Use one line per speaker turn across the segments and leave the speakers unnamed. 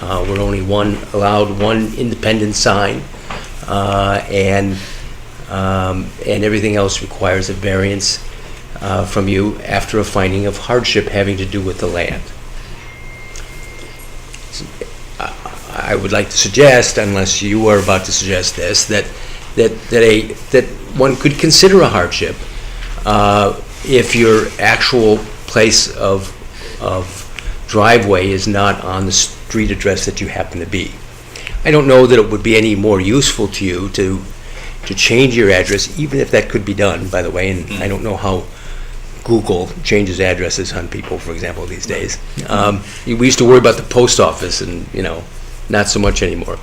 Uh, We're only one, allowed one independent sign, uh, and, um, and everything else requires a variance uh, from you after a finding of hardship having to do with the land. I I would like to suggest, unless you are about to suggest this, that, that, that a, that one could consider a hardship uh, if your actual place of, of driveway is not on the street address that you happen to be. I don't know that it would be any more useful to you to, to change your address, even if that could be done, by the way, and I don't know how Google changes addresses on people, for example, these days. Um, we used to worry about the post office, and you know, not so much anymore.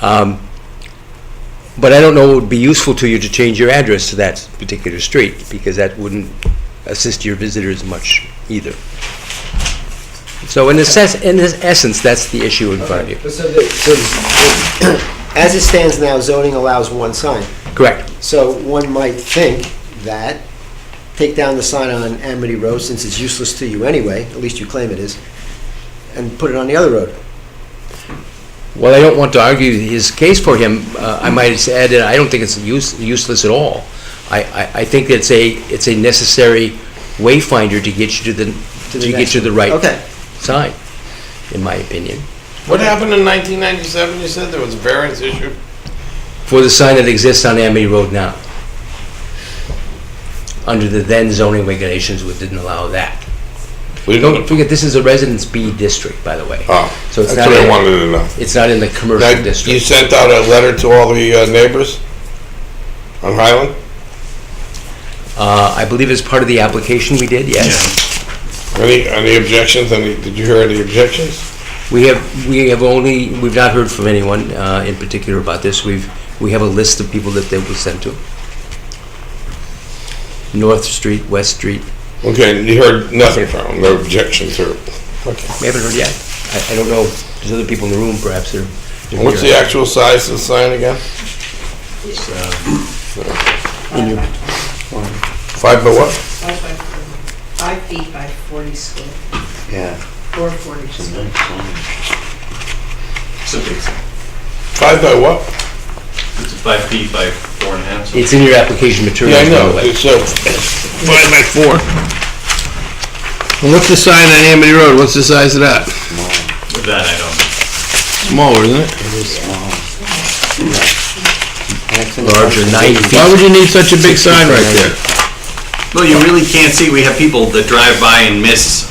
Um, but I don't know it would be useful to you to change your address to that particular street because that wouldn't assist your visitors much either. So in, assess- in essence, that's the issue in front of you.
But So, the- so the- as it stands now, zoning allows one sign.
Correct.
So one might think that, take down the sign on Amity Road, since it's useless to you anyway, at least you claim it is, and put it on the other road.
Well, I don't want to argue his case for him. Uh, I might just add that I don't think it's use- useless at all. I- I I think it's a, it's a necessary wayfinder to get you to the,
To
to
the
get
next
you the
one.
right
Okay.
sign, in my opinion.
What happened in 1997? You said there was a variance issue?
For the sign that exists on Amity Road now. Under the then zoning regulations, we didn't allow that.
We
Don't
don't,
forget, this is a Residence B district, by the way.
oh,
So it's
that's
not,
what I
in-
wanted to know.
it's not in the commercial
That, you
district.
sent out a letter to all the uh, neighbors on Highland?
Uh, I believe it's part of the application we did, yes.
Any, any objections? Any, did you hear any objections?
We have, we have only, we've not heard from anyone uh, in particular about this. We've, we have a list of people that they will send to. North Street, West Street,
Okay, and you heard nothing from them, no objections or, okay.
we haven't heard yet. I, I don't know, there's other people in the room perhaps that are.
And What's the actual size of the sign again? Five by what?
Five feet by 40 square,
Yeah.
or 40 square.
It's a big sign.
Five by what?
It's five feet by four and a half. so-
It's in your application
Yeah, I
materials, by the
know,
way.
it's, uh, five by four. And what's the sign on Amity Road? What's the size of that?
That I don't.
Small, isn't it?
Larger, nine
Why
feet.
would you need such a big sign right there?
Well, you really can't see. We have people that drive by and miss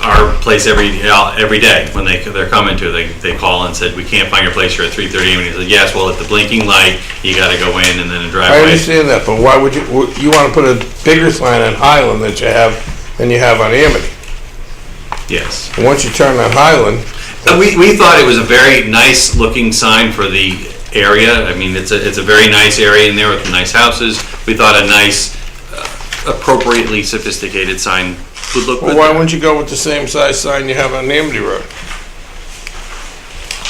our place every uh, every day when they they're coming to. They they call and said we can't find your place. You're at 3:30, and he said yes. Well, at the blinking light, you got to go in and then a
I
driveway.
understand that, but why would you, w- you want to put a bigger sign on Highland that you have, than you have on Amity?
Yes.
And once you turn on Highland,
Uh, We, we thought it was a very nice looking sign for the area. I mean, it's a, it's a very nice area in there with nice houses. We thought a nice, uh, appropriately sophisticated sign would look
well,
good.
why
there.
wouldn't you go with the same size sign you have on Amity Road?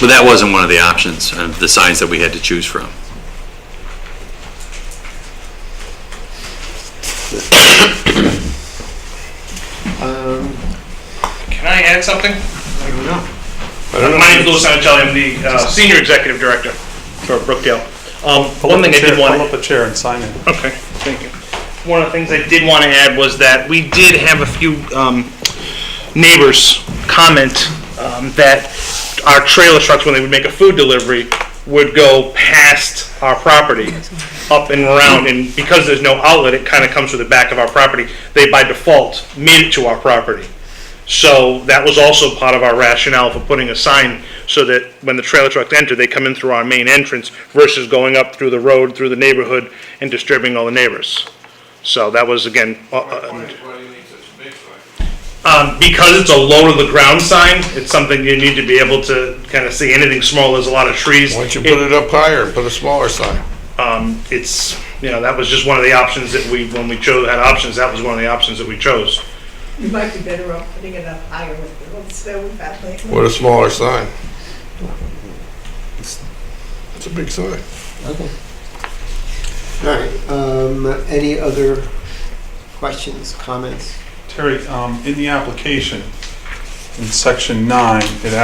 But that wasn't one of the options, uh, the signs that we had to choose from.
Can I add something?
I don't know.
My name is Louis Sanatelli, I'm the uh, Senior Executive Director for Brookdale. Um, One thing I did want,
Pull up a chair and sign it.
okay, thank you. One of the things I did want to add was that we did have a few um, neighbors comment um, that our trailer trucks, when they would make a food delivery, would go past our property, up and around, and because there's no outlet, it kind of comes to the back of our property. They by default made it to our property. So that was also part of our rationale for putting a sign so that when the trailer trucks enter, they come in through our main entrance versus going up through the road, through the neighborhood, and disturbing all the neighbors. So that was, again, uh, uh, um, because it's a low to the ground sign, it's something you need to be able to kind of see. Anything small, there's a lot of trees.
Why don't you put it up higher and put a smaller sign?
Um, it's, you know, that was just one of the options that we, when we chose, had options, that was one of the options that we chose.
You might be better off putting it up higher with the old stone balcony.
What a smaller sign. It's- It's a big sign.
All right, um, any other questions, comments?
Terry, um, in the application, in section nine, it